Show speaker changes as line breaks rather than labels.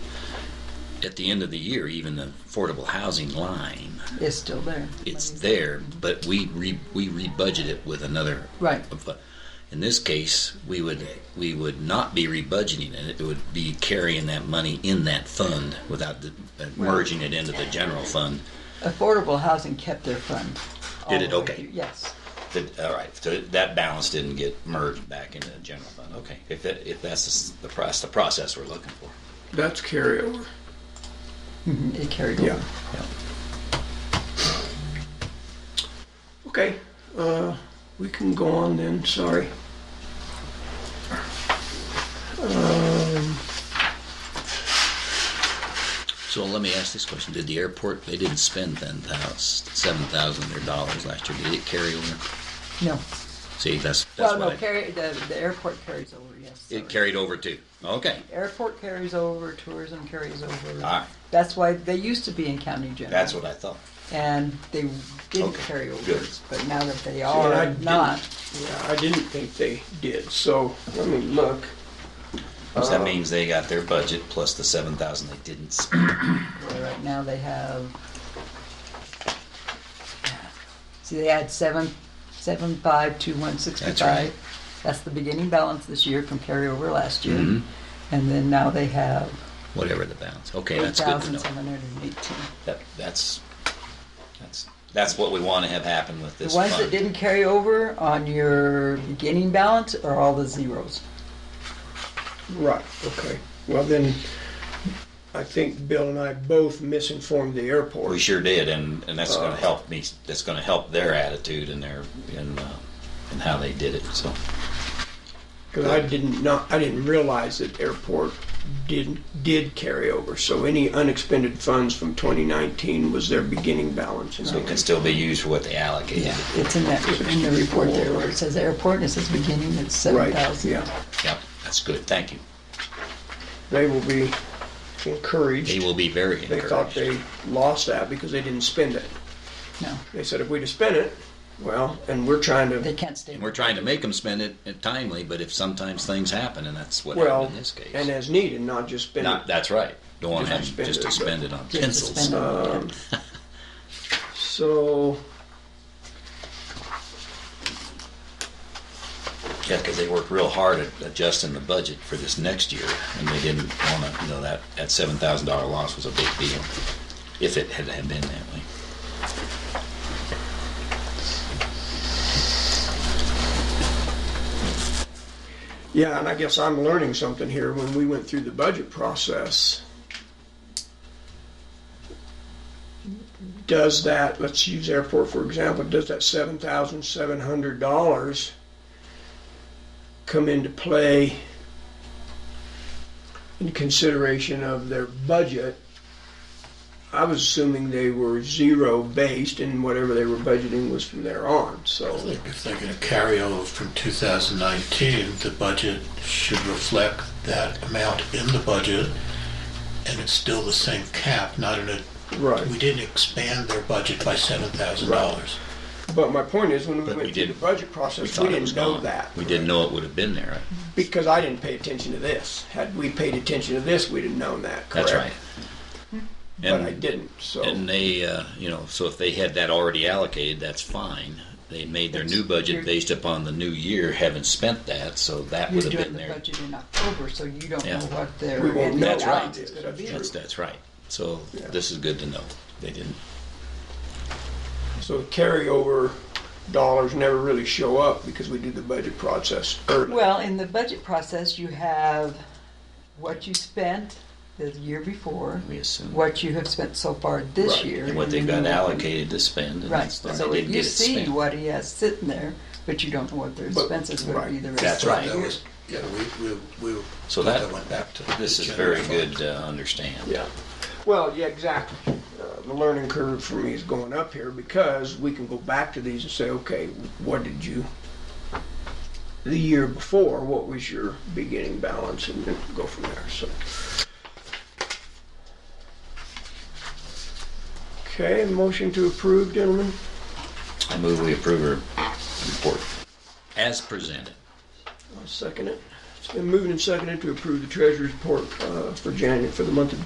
at the end of the year, even the affordable housing line,
It's still there.
it's there, but we re, we rebudget it with another.
Right.
of- In this case, we would we would not be rebudgeting it. It would be carrying that money in that fund without the, uh, merging it into the general fund.
Affordable housing kept their fund. all
Did it?
the way
Okay.
through. Yes.
That- all right, so that balance didn't get merged back into the general fund. Okay, if that, if that's the s- the process, the process we're looking for.
That's carryover.
Mhm, It carried
Yeah.
over.
Okay, uh, we can go on then, sorry.
So let me ask this question: Did the airport? They didn't spend ten thousand, seven thousand of their dollars last year. Did it carry over?
No.
See, that's that's what
Well, no,
I,
carry, the, the airport carries over, yes.
it
sorry.
carried over too. Okay,
Airport carries over, tourism carries over.
All right.
That's why, they used to be in county general.
Ah. that's what I thought.
And they didn't
Okay,
carry over,
good.
but now that they
I
are
didn't-
not,
Yeah, I didn't think they did, so let me look.
So
Oh.
that means they got their budget plus the seven thousand they didn't spend.
right now they have, see, they had seven, seven five two one sixty-five.
That's right.
That's the beginning balance this year from carryover last year. And then now they have
Whatever the balance. Okay,
eight
Mm-hmm. that's good to
thousand
know.
seven hundred and eighteen.
That that's that's that's what we want to have happen with
The
this
ones
fund.
that didn't carry over on your beginning balance are all the zeros.
Right, okay. Well, then, I think Bill and I both misinformed the
We
airport.
sure did, and, and that's
Oh.
going
Uh,
to help me. That's going to help their attitude and their and uh, and how they did it. So
Because I didn't not, I didn't realize that airport did, did carry over. So any unexpended funds from 2019 was their beginning balance.
so it can still be used for what they allocated.
Yeah, it's in that, in the report there where it says airport and it says beginning, it's seven
Right,
thousand.
yeah.
Yep, that's good. Thank you.
They will be encouraged.
They will be very
They thought
encouraged.
they lost that because they didn't spend it.
No,
They said if we'd have spent it, well, and we're trying
they
to,
can't stay.
and we're trying to make them spend it uh, timely, but if sometimes things happen, and that's what
well,
happened in this case.
and as needed, not just spend
Not,
it.
that's right. Don't want to
Just
have
spend
just
it,
expend it on
Just
pencils.
suspended, yeah.
So,
Yeah, because they worked real hard at adjusting the budget for this next year, and they didn't want to, you know, that, that seven thousand dollar loss was a big deal, if it had had been that way.
yeah, and I guess I'm learning something here. When we went through the budget process, does that, let's use airport for example, does that seven thousand seven hundred dollars come into play in consideration of their budget? I was assuming they were zero based and whatever they were budgeting was from there on, so.
I think if they're going to carry over from 2019, the budget should reflect that amount in the budget, and it's still the same cap, not in a,
Right.
we didn't expand their budget by $7,000.
But my point is, when we
But we
went through the
didn't-
budget
We
process,
thought
we
it was
didn't know
gone.
that.
We didn't know it would have been there. right?
Because I didn't pay attention to this. Had we paid attention to this, we'd have known that, correct?
That's right.
But I
And-
didn't, so.
And they, uh, you know, so if they had that already allocated, that's fine. They made their new budget based upon the new year, haven't spent that, so that
You're
would have been
doing the
there.
budget in October, so you don't know
Yeah.
what their.
We won't know
end
what
balance
it
is
is,
gonna
that's
be.
true.
That's, that's right. So
Yeah.
this is good to know. They didn't.
So the carryover dollars never really show up because we do the budget process early.
Well, in the budget process, you have what you spent the year before,
We assume.
what you have spent so far this
Right,
year.
And what they've
then
got
you-
allocated to spend. and
Right,
that's- they
so
didn't
if
get
you
it
see
spent.
what he has sitting there, but you don't know what their
But-
expenses would be the rest
That's
of the
right.
That
year.
was, yeah, we, we, we.
So that-
went back to.
This
the
is
general
very
fund.
good to understand.
Yeah. Well, yeah, exactly. Uh, the learning curve for me is going up here because we can go back to these and say, okay, what did you, the year before, what was your beginning balance, and then go from there. So. Okay, motion to approve, gentlemen.
I move we approve her report. As presented.
I'll second it. It's been moved and seconded to approve the treasurer's report uh, for January for the month of